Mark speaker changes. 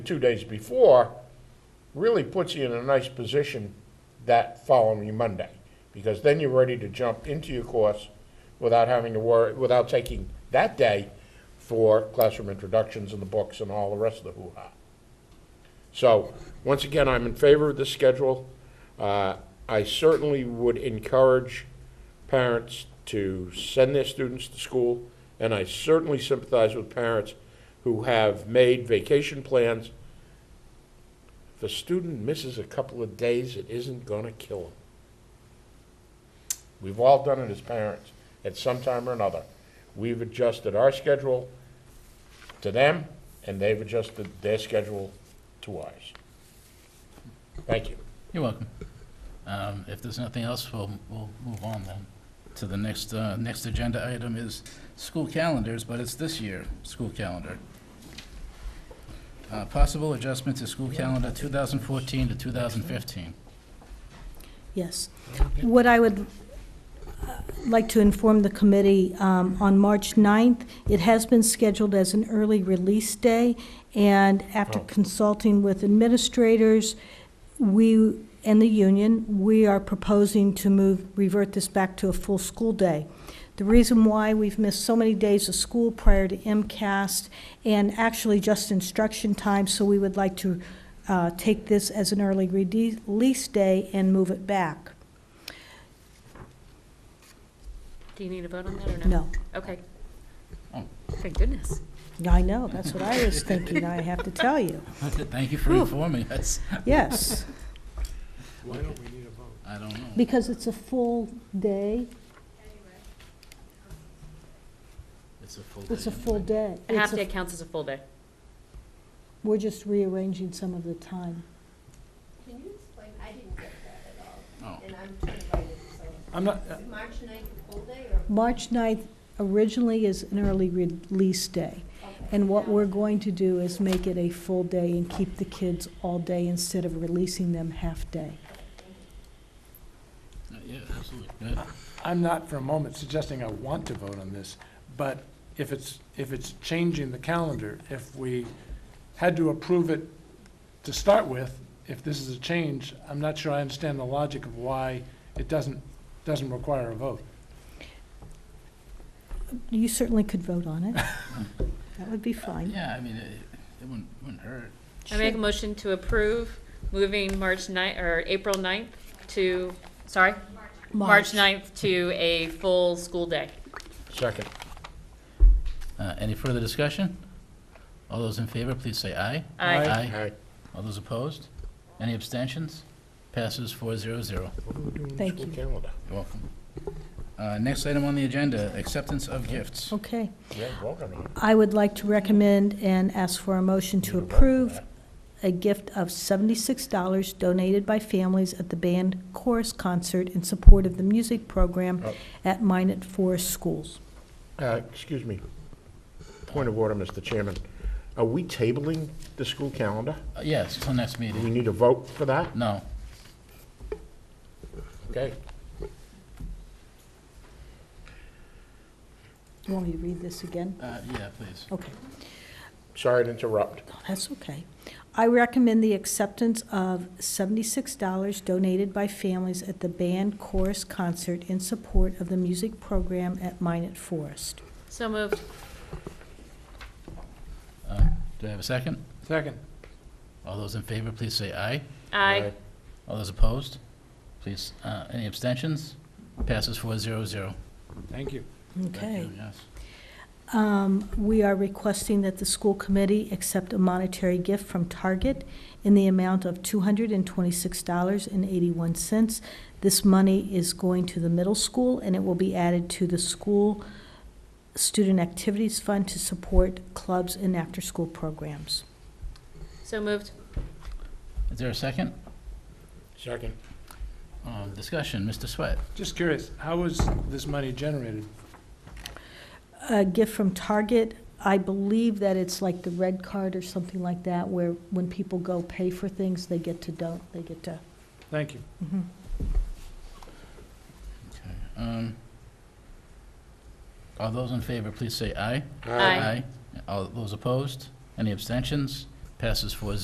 Speaker 1: two days before really puts you in a nice position that following Monday, because then you're ready to jump into your course without having to worry, without taking that day for classroom introductions and the books and all the rest of the hoo-ha. So, once again, I'm in favor of this schedule. Uh, I certainly would encourage parents to send their students to school, and I certainly sympathize with parents who have made vacation plans. If a student misses a couple of days, it isn't gonna kill him. We've all done it as parents, at some time or another. We've adjusted our schedule to them, and they've adjusted their schedule to ours. Thank you.
Speaker 2: You're welcome. Um, If there's nothing else, we'll, we'll move on then to the next, uh, next agenda item is school calendars, but it's this year, school calendar. Uh, Possible adjustment to school calendar 2014 to 2015.
Speaker 3: Yes. What I would uh, like to inform the committee, um, on March 9th, it has been scheduled as an early release day, and after
Speaker 1: Oh.
Speaker 3: consulting with administrators, we, and the union, we are proposing to move, revert this back to a full school day. The reason why we've missed so many days of school prior to MCAS and actually just instruction time, so we would like to uh, take this as an early rede- release day and move it back.
Speaker 4: Do you need a vote on that or no?
Speaker 3: No,
Speaker 4: Okay.
Speaker 2: Oh.
Speaker 4: Thank goodness.
Speaker 3: I know, that's what I was thinking, I have to tell you.
Speaker 2: Thank you for informing us.
Speaker 3: Yes,
Speaker 5: Why don't we need a vote?
Speaker 2: I don't know.
Speaker 3: because it's a full day,
Speaker 2: It's a full day.
Speaker 3: it's a full day.
Speaker 4: A
Speaker 3: It's
Speaker 4: half
Speaker 3: a-
Speaker 4: day counts as a full day.
Speaker 3: We're just rearranging some of the time.
Speaker 6: Can you explain, I didn't get that at all,
Speaker 2: Oh,
Speaker 6: and I'm trying to write it, so.
Speaker 5: I'm not,
Speaker 6: Is March ninth a full day or?
Speaker 3: March 9th originally is an early release day,
Speaker 6: okay.
Speaker 3: and what we're going to do is make it a full day and keep the kids all day instead of releasing them half-day.
Speaker 2: uh, yeah, absolutely. Good.
Speaker 5: I'm not for a moment suggesting I want to vote on this, but if it's, if it's changing the calendar, if we had to approve it to start with, if this is a change, I'm not sure I understand the logic of why it doesn't, doesn't require a vote.
Speaker 3: You certainly could vote on it. That would be fine.
Speaker 2: Yeah, I mean, it it wouldn't, wouldn't hurt.
Speaker 4: I make a motion to approve moving March ninth, or April ninth to, sorry? March ninth to a full school day.
Speaker 1: Second.
Speaker 2: Uh, Any further discussion? All those in favor, please say aye.
Speaker 4: Aye.
Speaker 5: Aye.
Speaker 1: Aye.
Speaker 2: All those opposed? Any abstentions? Passes four zero zero.
Speaker 1: What do we do in the
Speaker 3: Thank
Speaker 1: school
Speaker 3: you.
Speaker 1: calendar?
Speaker 2: You're welcome. Uh, Next item on the agenda, acceptance of gifts.
Speaker 3: Okay.
Speaker 1: We ain't voting on it.
Speaker 3: I would like to recommend and ask for a motion to approve a gift of $76 donated by families at the band chorus concert in support of the music program
Speaker 1: Oh.
Speaker 3: at Minot Forest Schools.
Speaker 1: Uh, Excuse me. Point of order, Mr. Chairman. Are we tabling the school calendar?
Speaker 2: Uh, Yes, till next
Speaker 1: Do we
Speaker 2: meeting.
Speaker 1: need a vote for that?
Speaker 2: No.
Speaker 1: Okay.
Speaker 3: You want me to read this again?
Speaker 2: Uh, Yeah, please.
Speaker 3: Okay.
Speaker 1: Sorry to interrupt.
Speaker 3: No, That's okay. I recommend the acceptance of seventy-six dollars donated by families at the band chorus concert in support of the music program at Minot Forest.
Speaker 4: So moved.
Speaker 2: Uh, Do I have a second?
Speaker 5: Second.
Speaker 2: All those in favor, please say aye.
Speaker 4: Aye.
Speaker 2: All those opposed? Please, uh, any abstentions? Passes four zero zero.
Speaker 5: Thank you.
Speaker 3: Okay.
Speaker 2: Yes.
Speaker 3: Um, We are requesting that the school committee accept a monetary gift from Target in the amount of $226.81. This money is going to the middle school, and it will be added to the school student activities fund to support clubs and after-school programs.
Speaker 4: So moved.
Speaker 2: Is there a second?
Speaker 1: Second.
Speaker 2: Uh, Discussion, Mr. Sweat.
Speaker 5: Just curious, how was this money generated?
Speaker 3: A gift from Target, I believe that it's like the red card or something like that, where when people go pay for things, they get to don't, they get to,
Speaker 5: Thank you.
Speaker 3: Mhm.
Speaker 2: Okay, um, All those in favor, please say aye.
Speaker 4: Aye.
Speaker 2: All those opposed? Any abstentions? Passes four zero.